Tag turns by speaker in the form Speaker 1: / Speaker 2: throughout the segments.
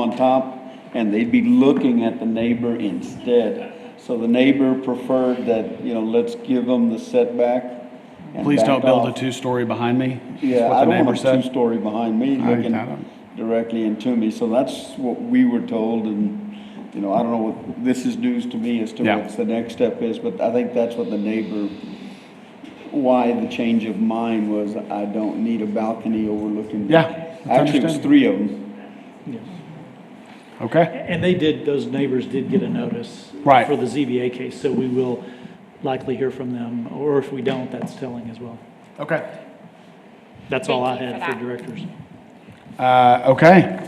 Speaker 1: on top, and they'd be looking at the neighbor instead. So the neighbor preferred that, you know, let's give them the setback. and
Speaker 2: Please don't
Speaker 1: back
Speaker 2: build a
Speaker 1: off.
Speaker 2: two-story behind me. is
Speaker 1: Yeah,
Speaker 2: what
Speaker 1: I
Speaker 2: the
Speaker 1: don't
Speaker 2: neighbor
Speaker 1: want a
Speaker 2: said.
Speaker 1: two-story behind me
Speaker 2: I
Speaker 1: looking
Speaker 2: don't.
Speaker 1: directly into me, so that's what we were told, and, you know, I don't know, what this is news to me as to
Speaker 2: Yeah.
Speaker 1: what the next step is, but I think that's what the neighbor, why the change of mind was, I don't need a balcony overlooking. the-"
Speaker 2: Yeah, that's
Speaker 1: Actually, it was
Speaker 2: understandable.
Speaker 1: three of them.
Speaker 2: Okay,
Speaker 3: And they did, those neighbors did get a notice.
Speaker 2: Right.
Speaker 3: For the ZBA case, so we will likely hear from them, or if we don't, that's telling as well.
Speaker 2: okay.
Speaker 3: That's all I
Speaker 4: Thank you
Speaker 3: had
Speaker 4: for
Speaker 3: for
Speaker 4: that.
Speaker 3: directors.
Speaker 2: Uh, okay,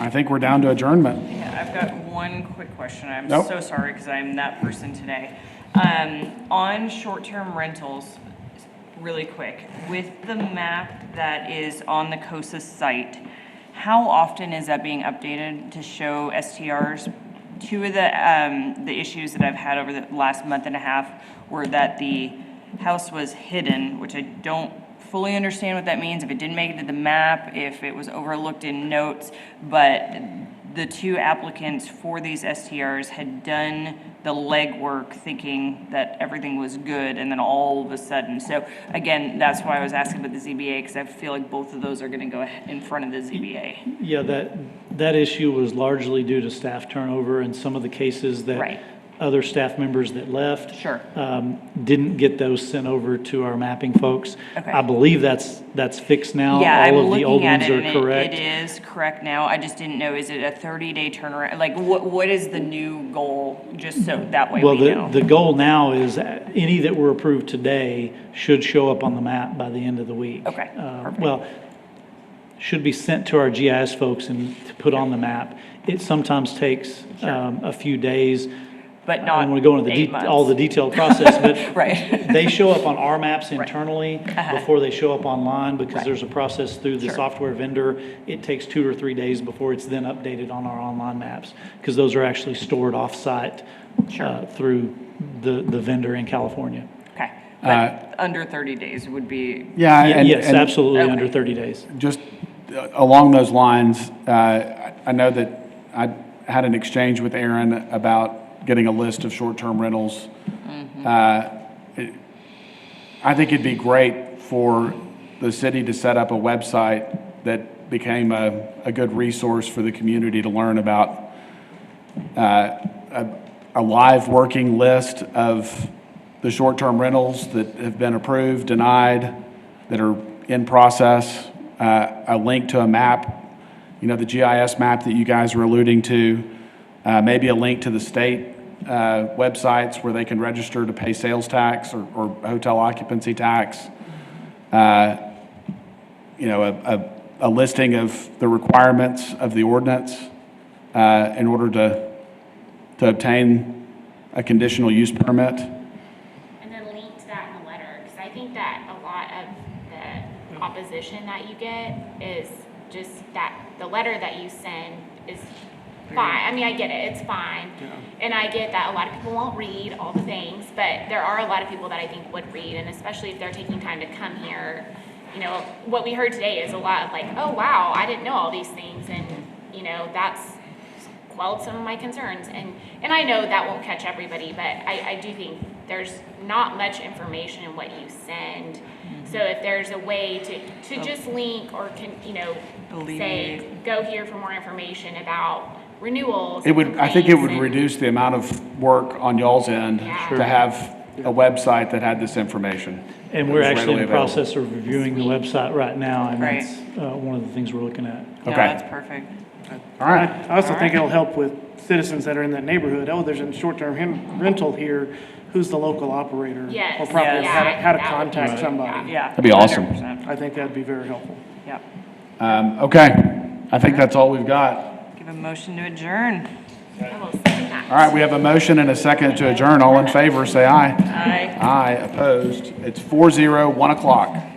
Speaker 2: I think we're down to adjournment.
Speaker 4: Yeah, I've got one quick question. I'm
Speaker 2: Nope.
Speaker 4: so sorry because I'm that person today. Um, on short-term rentals, really quick, with the map that is on the COSA site, how often is that being updated to show STRs? Two of the, um, the issues that I've had over the last month and a half were that the house was hidden, which I don't fully understand what that means, if it didn't make it to the map, if it was overlooked in notes, but the two applicants for these STRs had done the legwork thinking that everything was good, and then all of a sudden, so again, that's why I was asking about the ZBA, because I feel like both of those are gonna go ahe- in front of the ZBA.
Speaker 3: Yeah, that, that issue was largely due to staff turnover and some of the cases that.
Speaker 4: Right.
Speaker 3: Other staff members that left.
Speaker 4: Sure.
Speaker 3: Um, didn't get those sent over to our mapping folks.
Speaker 4: Okay.
Speaker 3: I believe that's, that's fixed now.
Speaker 4: Yeah, I'm
Speaker 3: All of the old
Speaker 4: looking at
Speaker 3: ones
Speaker 4: it,
Speaker 3: are
Speaker 4: and it-
Speaker 3: correct.
Speaker 4: it is correct now, I just didn't know, is it a thirty-day turnaround? Like, what, what is the new goal, just so that way
Speaker 3: Well,
Speaker 4: we
Speaker 3: the,
Speaker 4: know?
Speaker 3: the goal now is uh, any that were approved today should show up on the map by the end of the week.
Speaker 4: Okay,
Speaker 3: Uh,
Speaker 4: perfect.
Speaker 3: Well, should be sent to our GIS folks and to put on the map. It sometimes takes um, a few days.
Speaker 4: But
Speaker 3: I
Speaker 4: not
Speaker 3: don't want to go into the,
Speaker 4: eight
Speaker 3: det- all the
Speaker 4: months.
Speaker 3: detailed process, but.
Speaker 4: Right. Uh-huh.
Speaker 3: They show up on our maps internally before they show up online because
Speaker 4: Right.
Speaker 3: there's a process through the
Speaker 4: Sure.
Speaker 3: software vendor. It takes two or three days before it's then updated on our online maps because those are actually stored off-site
Speaker 4: Sure.
Speaker 3: uh, through the, the vendor in California.
Speaker 4: Okay,
Speaker 2: Uh,
Speaker 4: but under 30 days would be,
Speaker 2: Yeah,
Speaker 3: Ye-
Speaker 2: and,
Speaker 3: Yes,
Speaker 2: and
Speaker 3: absolutely,
Speaker 4: Okay.
Speaker 3: under 30 days.
Speaker 2: just uh, along those lines, uh, I I know that I had an exchange with Aaron about getting a list of short-term rentals.
Speaker 1: Mm-hmm.
Speaker 2: Uh, it- I think it'd be great for the city to set up a website that became a, a good resource for the community to learn about a live working list of the short-term rentals that have been approved, denied, that are in process, uh, a link to a map, you know, the GIS map that you guys were alluding to, uh, maybe a link to the state uh, websites where they can register to pay sales tax or or hotel occupancy tax uh, you know, a, a, a listing of the requirements of the ordinance uh, in order to, to obtain a conditional use permit.
Speaker 5: And then link to that in the letter, because I think that a lot of the opposition that you get is just that the letter that you send is fine. I mean, I get it, it's fine. And I get that a lot of people won't read all the things, but there are a lot of people that I think would read, and especially if they're taking time to come here. You know, what we heard today is a lot of like, oh, wow, I didn't know all these things, and, you know, that's quelled some of my concerns. And, and I know that won't catch everybody, but I, I do think there's not much information in what you send.
Speaker 2: Mm-hmm.
Speaker 5: So if there's a way to,
Speaker 2: Oh.
Speaker 5: to just link or can, you know, say,
Speaker 4: Alleviate.
Speaker 5: go here for more information about renewals.
Speaker 2: It would, I think it would
Speaker 5: complaints and-
Speaker 2: reduce the amount of work on y'all's end
Speaker 5: Yeah.
Speaker 2: to have a website that had this information.
Speaker 3: And
Speaker 2: that
Speaker 3: we're
Speaker 2: was
Speaker 3: actually
Speaker 2: readily
Speaker 3: in the
Speaker 2: available.
Speaker 3: process of reviewing the website right now, and
Speaker 4: Right.
Speaker 3: that's uh, one of the things we're looking at.
Speaker 4: no,
Speaker 2: Okay.
Speaker 4: that's perfect.
Speaker 2: All right,
Speaker 6: I also think it'll help with citizens that are in that neighborhood. Oh, there's a short-term hen- rental here. Who's the local operator?
Speaker 5: Yes.
Speaker 6: Or property,
Speaker 4: Yes.
Speaker 6: how to, how to
Speaker 5: Yeah.
Speaker 6: contact somebody.
Speaker 4: Yeah.
Speaker 2: That'd be awesome.
Speaker 4: 100%.
Speaker 6: I think that'd be very helpful.
Speaker 4: Yeah.
Speaker 2: um, okay, I think that's all we've got.
Speaker 4: Give a motion to adjourn.
Speaker 5: I will send that.
Speaker 2: All right, we have a motion and a second to adjourn. All in favor, say aye.
Speaker 4: Aye.
Speaker 2: Aye, opposed. It's four zero, one o'clock.